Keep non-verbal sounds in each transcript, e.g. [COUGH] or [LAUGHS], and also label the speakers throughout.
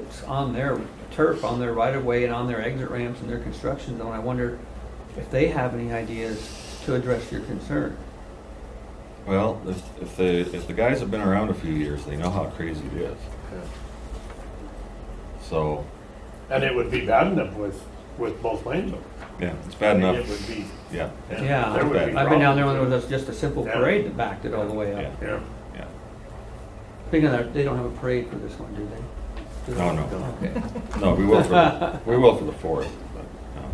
Speaker 1: It's on their turf, on their right of way and on their exit ramps and their construction zone. I wonder if they have any ideas to address your concern.
Speaker 2: Well, if, if the, if the guys have been around a few years, they know how crazy it is. So,
Speaker 3: And it would be bad enough with, with both lanes open.
Speaker 2: yeah, it's bad
Speaker 3: I mean,
Speaker 2: enough,
Speaker 3: It would be.
Speaker 2: yeah,
Speaker 1: Yeah.
Speaker 3: There would be
Speaker 2: I've
Speaker 1: I've been down there when there
Speaker 3: problems.
Speaker 1: was just a simple
Speaker 3: Yeah.
Speaker 1: parade that backed it all the way
Speaker 2: yeah,
Speaker 1: up.
Speaker 3: Yeah,
Speaker 2: yeah.
Speaker 1: Speaking of that, they don't have a parade for this one, do they? Do
Speaker 2: No,
Speaker 1: they? [LAUGHS]
Speaker 2: no.
Speaker 1: Okay.
Speaker 2: No, we will for, we will for the fourth, but, no.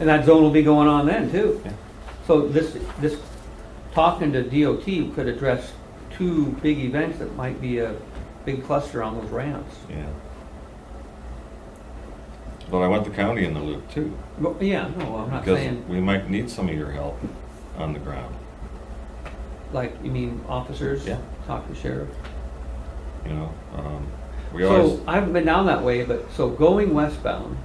Speaker 1: And that zone will be going on then too.
Speaker 2: Yeah.
Speaker 1: So this, this, talking to DOT could address two big events that might be a big cluster on those ramps.
Speaker 2: yeah. But I want the county in the loop too,
Speaker 1: But, yeah, no, I'm not
Speaker 2: because
Speaker 1: saying,
Speaker 2: we might need some of your help on the ground,
Speaker 1: like, you mean officers?
Speaker 2: Yeah.
Speaker 1: Talk to sheriff?
Speaker 2: you know? Um, We always,
Speaker 1: So I haven't been down that way, but so going westbound,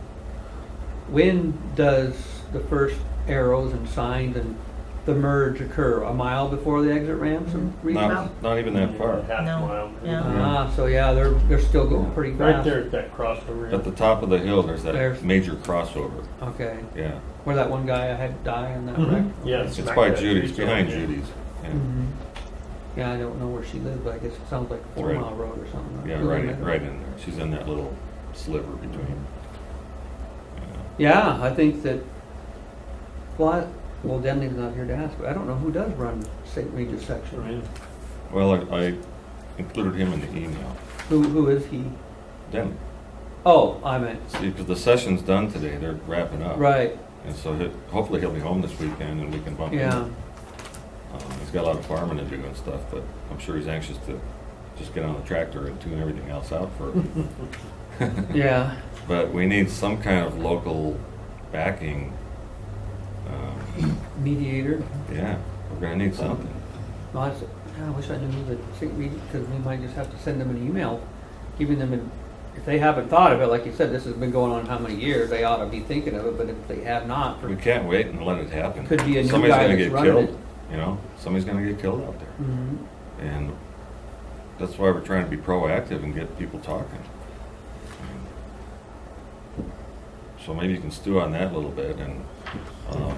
Speaker 1: when does the first arrows and signs and the merge occur? A mile before the exit ramps and
Speaker 3: Mm-hmm.
Speaker 1: reroutes?
Speaker 2: not, not even that far.
Speaker 3: half
Speaker 4: No,
Speaker 3: mile.
Speaker 4: yeah.
Speaker 1: Ah, so yeah, they're, they're still going pretty
Speaker 3: Right
Speaker 1: fast.
Speaker 3: there at that crossover.
Speaker 2: At the top of the hill, there's
Speaker 1: There's-
Speaker 2: that major crossover,
Speaker 1: Okay,
Speaker 2: yeah.
Speaker 1: where that one guy I had die in that
Speaker 3: Mhm.
Speaker 1: wreck?
Speaker 3: Yeah.
Speaker 2: It's
Speaker 3: smack
Speaker 2: by
Speaker 3: that
Speaker 2: Judy's,
Speaker 3: Judy's
Speaker 2: behind
Speaker 3: over there.
Speaker 2: Judy's, yeah.
Speaker 1: Mhm. Yeah, I don't know where she lived, but I guess it sounds like a four
Speaker 2: Right.
Speaker 1: mile road or something.
Speaker 2: Yeah, right, in- right in there. She's in that little sliver between.
Speaker 1: Yeah, I think that, well, I- well, Denley's not here to ask, but I don't know who does run St. Regis section.
Speaker 3: Right.
Speaker 2: Well, I, I included him in the email.
Speaker 1: Who, who is he?
Speaker 2: Then,
Speaker 1: Oh, I meant,
Speaker 2: see, 'cause the session's done today, they're wrapping up.
Speaker 1: right,
Speaker 2: And so he- hopefully he'll be home this weekend and we can bump him.
Speaker 1: yeah,
Speaker 2: up. Um, He's got a lot of farming to do and stuff, but I'm sure he's anxious to just get on the tractor and tune everything else out for.
Speaker 1: [LAUGHS] yeah,
Speaker 2: But we need some kind of local backing. Um,
Speaker 1: mediator.
Speaker 2: Yeah, we're gonna need something.
Speaker 1: No, I s- I wish I knew that St. Regis, because we might just have to send them an email, giving them, an- if they haven't thought of it, like you said, this has been going on how many years, they ought to be thinking of it, but if they have not,
Speaker 2: We
Speaker 1: for-
Speaker 2: can't wait and let it happen.
Speaker 1: Could be a new
Speaker 2: Somebody's
Speaker 1: guy
Speaker 2: gonna
Speaker 1: that's
Speaker 2: get
Speaker 1: running
Speaker 2: killed. You know, somebody's gonna get killed out there.
Speaker 1: Mhm.
Speaker 2: And that's why we're trying to be proactive and get people talking. So maybe you can stew on that a little bit and, um,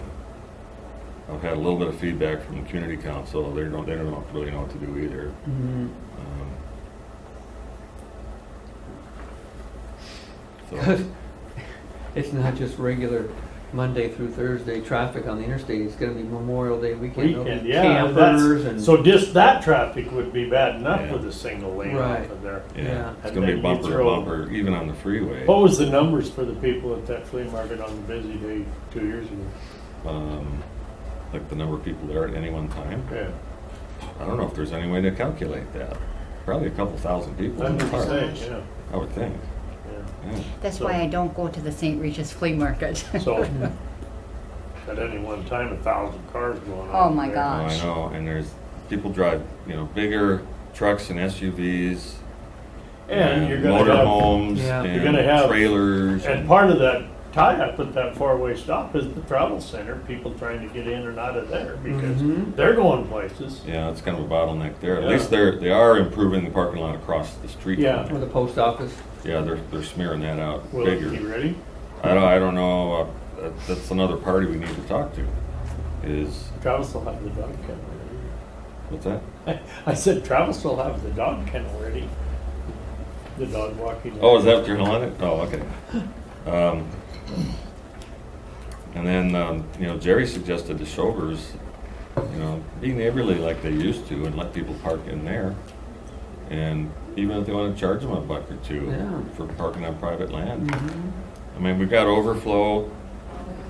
Speaker 2: I've had a little bit of feedback from the community council. They don't, they don't really know what to do either.
Speaker 1: Mhm.
Speaker 2: Um,
Speaker 1: [LAUGHS]
Speaker 2: So,
Speaker 1: It's not just regular Monday through Thursday traffic on the interstate, it's gonna be Memorial Day weekend, there'll
Speaker 3: Weekend,
Speaker 1: be
Speaker 3: yeah, that's,
Speaker 1: campers and.
Speaker 3: so just that traffic would be bad enough
Speaker 2: Yeah.
Speaker 3: with a single lane
Speaker 1: Right.
Speaker 3: off of there.
Speaker 1: Yeah.
Speaker 2: yeah, it's
Speaker 3: And
Speaker 2: gonna
Speaker 3: then
Speaker 2: be
Speaker 3: you
Speaker 2: bumper to
Speaker 3: throw- Oh,
Speaker 2: bumper, even on the freeway.
Speaker 3: What was the numbers for the people at that flea market on the busy day two years ago?
Speaker 2: um, like the number of people there at any one time.
Speaker 3: Yeah,
Speaker 2: I don't know if there's any way to calculate that. Probably a couple thousand people in
Speaker 3: that's
Speaker 2: the
Speaker 3: what
Speaker 2: park,
Speaker 3: I'm saying,
Speaker 2: I would think.
Speaker 3: yeah,
Speaker 2: Yeah.
Speaker 4: That's why I don't go to the St. Regis flea market. [LAUGHS]
Speaker 1: [LAUGHS]
Speaker 3: yeah. So, at any one time, a thousand cars going on.
Speaker 4: Oh, my
Speaker 3: there.
Speaker 2: Oh,
Speaker 4: God.
Speaker 2: I
Speaker 4: Gosh.
Speaker 2: know, and there's, people drive, you know, bigger trucks and SUVs
Speaker 3: And
Speaker 2: and
Speaker 3: you're gonna have.
Speaker 2: motorhomes
Speaker 1: Yeah.
Speaker 3: You're gonna have-
Speaker 2: and trailers.
Speaker 3: And part of that tie-up with that four-way stop is the travel center, people trying to get in and out of there because
Speaker 1: Mhm.
Speaker 3: they're going places.
Speaker 2: Yeah, it's kind of a bottleneck there. At
Speaker 3: Yeah.
Speaker 2: least they're, they are improving the parking lot across the street. from
Speaker 3: Yeah.
Speaker 2: there.
Speaker 1: Or the post office,
Speaker 2: Yeah, they're, they're smearing that out
Speaker 3: Will
Speaker 2: bigger.
Speaker 3: you ready?
Speaker 2: I don't, I don't know, uh, that- that's another party we need to talk to, is,
Speaker 3: Travis will have the dog kennel
Speaker 2: what's that?
Speaker 3: ready. I said Travis will have the dog kennel ready. The dog walking.
Speaker 2: Oh, is that what you're calling it? Oh, okay. Um, And then, um, you know, Jerry suggested the Showers, you know, be neighborly like they used to and let people park in there. And even if they want to charge them a buck or two
Speaker 1: Yeah.
Speaker 2: for parking on private land. I mean, we've got overflow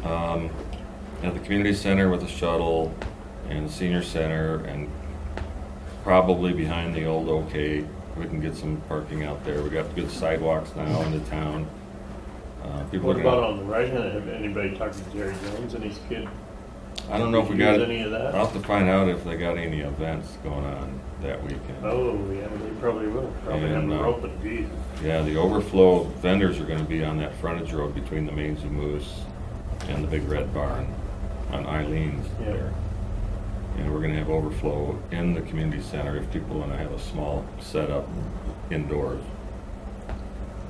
Speaker 2: um, at the community center with the shuttle and the senior center and probably behind the old OK. We can get some parking out there. We got good sidewalks now into town. Uh, People are
Speaker 3: What
Speaker 2: gonna.
Speaker 3: about on the right hand? Have anybody talked to Jerry Jones and his kid?
Speaker 2: I don't know if we
Speaker 3: Did you
Speaker 2: got,
Speaker 3: use
Speaker 2: it.
Speaker 3: any of
Speaker 2: I'll
Speaker 3: that?
Speaker 2: have to find out if they got any events going on that weekend.
Speaker 3: Oh, yeah, they probably will. Probably have
Speaker 2: And,
Speaker 3: a
Speaker 2: uh,
Speaker 3: rope and deed.
Speaker 2: Yeah, the overflow vendors are gonna be on that frontage road between the Mains and Moose and the Big Red Barn on Eileen's
Speaker 3: Yeah.
Speaker 2: there. And we're gonna have overflow in the community center if people wanna have a small setup indoors.